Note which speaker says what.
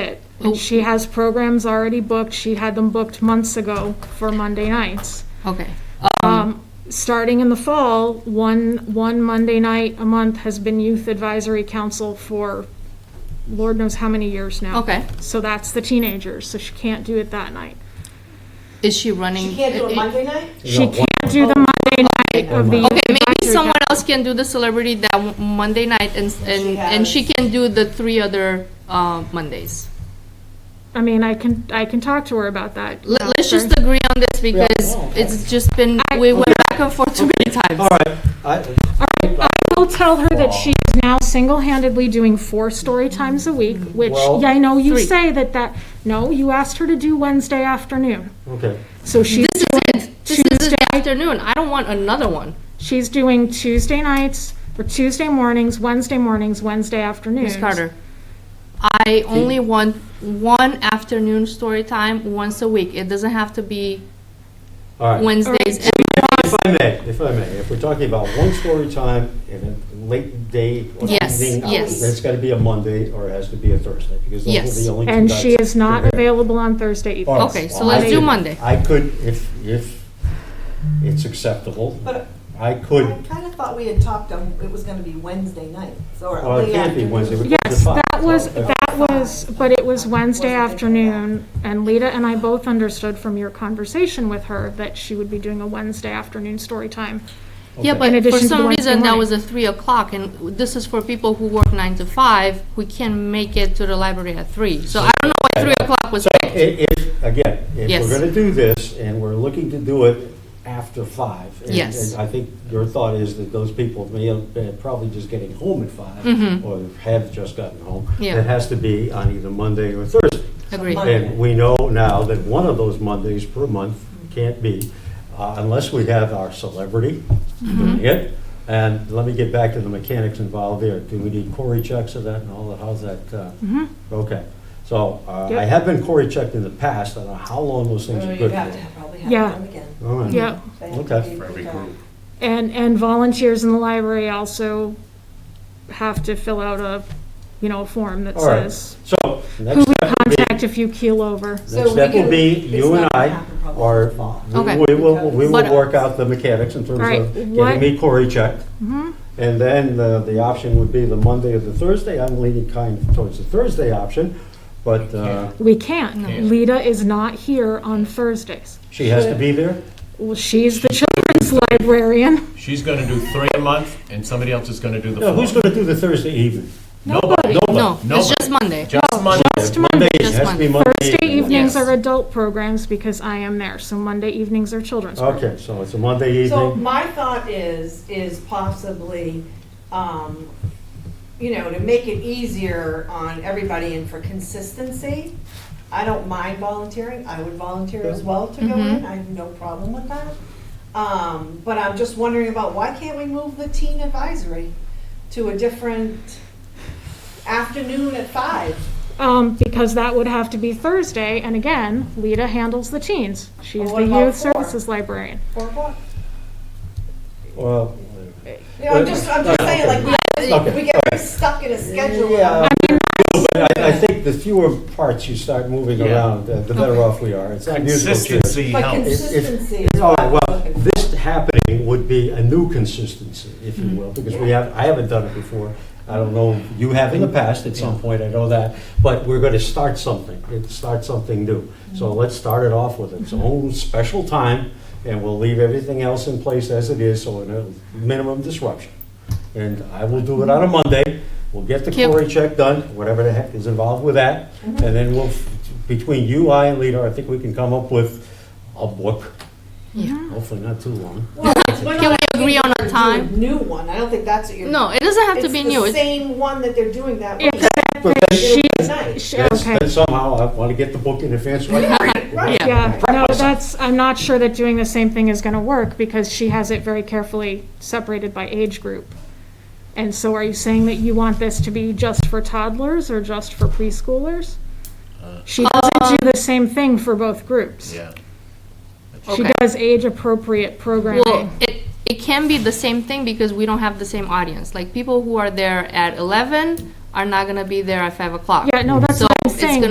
Speaker 1: it.
Speaker 2: Oh.
Speaker 1: She has programs already booked. She had them booked months ago for Monday nights. Um,
Speaker 2: Okay. Um,
Speaker 1: Starting in the fall, one, one Monday night a month has been Youth Advisory Council for Lord knows how many years now.
Speaker 2: Okay.
Speaker 1: So that's the teenagers, so she can't do it that night.
Speaker 2: Is she running?
Speaker 3: You can't do a Monday night?
Speaker 1: She can't do the Monday night of the Youth
Speaker 2: Okay, maybe
Speaker 1: Advisory
Speaker 2: someone else can do the celebrity that w- Monday night and, and, and she
Speaker 3: has-
Speaker 2: can do the three other, uh, Mondays.
Speaker 1: I mean, I can, I can talk to her about that.
Speaker 2: Let, let's just agree on this because it's just been, we went back and forth too many times.
Speaker 4: All right, I,
Speaker 1: I will tell her that she is now single-handedly doing four story times a week, which,
Speaker 4: Well-
Speaker 1: yeah, I know you
Speaker 2: Three.
Speaker 1: say that that, no, you asked her to do Wednesday afternoon.
Speaker 4: okay.
Speaker 1: So she's
Speaker 2: This is it. This is the afternoon. I don't want another one.
Speaker 1: She's doing Tuesday nights, or Tuesday mornings, Wednesday mornings, Wednesday afternoons.
Speaker 2: Ms. Carter, I only want one afternoon story time once a week. It doesn't have to be
Speaker 4: All right.
Speaker 2: Wednesdays and
Speaker 4: If I may, if I may, if we're talking about one story time in a late day or
Speaker 2: Yes,
Speaker 4: evening,
Speaker 2: yes.
Speaker 4: it's got to be a Monday or it has to be a Thursday because those
Speaker 2: Yes.
Speaker 4: are the only two
Speaker 1: And
Speaker 4: nights
Speaker 1: she is not
Speaker 4: that-
Speaker 1: available on Thursday evening.
Speaker 4: All right,
Speaker 2: Oh. Okay, so
Speaker 4: well,
Speaker 2: let's
Speaker 4: I
Speaker 2: do
Speaker 4: could-
Speaker 2: Monday.
Speaker 4: I could, if, if it's acceptable,
Speaker 3: But
Speaker 4: I
Speaker 3: I
Speaker 4: could,
Speaker 3: kind of thought we had talked on, it was gonna be Wednesday night, so.
Speaker 4: well, it can't be Wednesday. we can't do
Speaker 1: Yes,
Speaker 4: five.
Speaker 1: that was,
Speaker 4: So, uh,
Speaker 1: that was, but it was Wednesday afternoon, and Lita and I both understood from your conversation with her that she would be doing a Wednesday afternoon story time.
Speaker 2: Mm-hmm. Yeah,
Speaker 1: In
Speaker 2: but for
Speaker 1: addition to
Speaker 2: some
Speaker 1: Wednesday
Speaker 2: reason, that
Speaker 1: morning.
Speaker 2: was a three o'clock, and this is for people who work nine to five, who can't make it to the library at three. So I don't know why three o'clock was
Speaker 4: i-
Speaker 2: picked.
Speaker 4: If, again, if
Speaker 2: Yes.
Speaker 4: we're going to do this and we're looking to do it after five. and-
Speaker 2: Yes.
Speaker 4: And I think your thought is that those people may have been probably just getting home at five or have just gotten home.
Speaker 2: Mm-hmm. Yeah.
Speaker 4: It has to be on either Monday or Thursday.
Speaker 2: Agreed.
Speaker 3: Monday.
Speaker 4: And we know now that one of those Mondays per month can't be, uh, unless we have our celebrity
Speaker 1: Mm-hmm.
Speaker 4: doing it. And let me get back to the mechanics involved there. Do we need query checks of that and all that? How's that? uh, Okay. So uh, I
Speaker 1: Mm-hmm. Yep.
Speaker 4: have been query checked in the past. I don't know how long those things are
Speaker 3: Oh, You
Speaker 4: good
Speaker 3: have to
Speaker 4: for.
Speaker 3: probably have it
Speaker 1: Yeah.
Speaker 3: on again.
Speaker 4: All right.
Speaker 1: Yep.
Speaker 3: They have to
Speaker 4: Okay.
Speaker 3: be
Speaker 5: For every
Speaker 3: picked up.
Speaker 5: group.
Speaker 1: And, and volunteers in the library also have to fill out a, you know, a form that
Speaker 4: All right.
Speaker 1: says,
Speaker 4: So
Speaker 1: who
Speaker 4: next
Speaker 1: we
Speaker 4: step would be,
Speaker 1: contact if you keel over.
Speaker 3: So
Speaker 4: next
Speaker 3: we
Speaker 4: step will
Speaker 3: could-
Speaker 4: be
Speaker 3: it's
Speaker 4: you and
Speaker 3: not gonna
Speaker 4: I,
Speaker 3: happen probably
Speaker 4: or
Speaker 3: till fall.
Speaker 2: Okay.
Speaker 4: we will, we
Speaker 2: But-
Speaker 4: will work out the mechanics in terms
Speaker 1: Right,
Speaker 4: of
Speaker 1: what-
Speaker 4: getting me query checked. And then the, the option would be the Monday or the Thursday. I'm leaning kind of towards the Thursday option, but uh,
Speaker 1: We can't. Lita is not here on Thursdays.
Speaker 4: she has to be there?
Speaker 1: Well, she's the children's librarian.
Speaker 5: She's gonna do three a month, and somebody else is gonna do the
Speaker 4: No,
Speaker 5: four.
Speaker 4: who's going to do the Thursday evening?
Speaker 5: Nobody,
Speaker 2: No, it's
Speaker 5: nobody.
Speaker 2: just Monday.
Speaker 5: Just Monday.
Speaker 1: Just Monday.
Speaker 4: It has to be Monday
Speaker 1: Thursday evenings
Speaker 5: Yes.
Speaker 1: are adult programs because I am there, so Monday evenings are children's. programs.
Speaker 4: Okay, so it's a Monday
Speaker 3: So
Speaker 4: evening.
Speaker 3: my thought is, is possibly, um, you know, to make it easier on everybody and for consistency, I don't mind volunteering, I would volunteer as well to go in, I have no problem with that. Um, but I'm just wondering about, why can't we move the teen advisory to a different afternoon at five?
Speaker 1: Um, because that would have to be Thursday, and again, Lita handles the teens. She is
Speaker 3: Well, Oh, what
Speaker 1: the
Speaker 3: about
Speaker 1: youth
Speaker 3: four?
Speaker 1: services librarian.
Speaker 3: Four o'clock?
Speaker 4: Well,
Speaker 3: You know, I'm just, I'm just saying, like, we,
Speaker 4: Okay.
Speaker 3: we get very stuck in a schedule.
Speaker 4: Yeah, but I, I think the fewer parts you start moving
Speaker 5: Yeah.
Speaker 4: around, uh, the better off we are. It's not musical chairs.
Speaker 5: Consistency
Speaker 3: But
Speaker 5: helps.
Speaker 4: If- if-
Speaker 3: consistency is
Speaker 4: All
Speaker 3: what
Speaker 4: right,
Speaker 3: I'm
Speaker 4: well,
Speaker 3: looking for.
Speaker 4: this happening would be a new consistency, if you will, because we have, I haven't done it before. I don't know, you have in the past at some point, I know that, but we're gonna start something, it starts something new. So let's start it off with its own special time, and we'll leave everything else in place as it is, so in a minimum disruption. And I will do it on a Monday, we'll get the
Speaker 2: Yep.
Speaker 4: query check done, whatever the heck is involved with that, and then we'll, between you, I, and Lita, I think we can come up with a book Hopefully not too long.
Speaker 3: Can
Speaker 2: we agree on a time?
Speaker 3: New one, I don't think that's what you're.
Speaker 2: No, it doesn't have to be new.
Speaker 3: It's the
Speaker 2: It's-
Speaker 3: same one that they're doing that week.
Speaker 4: But then,
Speaker 3: It'll be nice.
Speaker 1: She-
Speaker 4: that's-
Speaker 1: Okay,
Speaker 4: then somehow I want to get the book in advance. so I can read it.
Speaker 3: Right.
Speaker 1: yeah, no, that's, I'm not sure that doing the same thing is gonna work because she has it very carefully separated by age group. And so are you saying that you want this to be just for toddlers or just for preschoolers? She doesn't
Speaker 2: Um,
Speaker 1: do the same thing for both groups.
Speaker 5: Yeah.
Speaker 1: She
Speaker 2: Okay.
Speaker 1: does age-appropriate
Speaker 2: Well,
Speaker 1: programming.
Speaker 2: it, it can be the same thing because we don't have the same audience. Like people who are there at eleven are not gonna be there at five o'clock.
Speaker 1: Yeah, no, that's
Speaker 2: So
Speaker 1: what I'm
Speaker 2: it's
Speaker 1: saying.
Speaker 2: gonna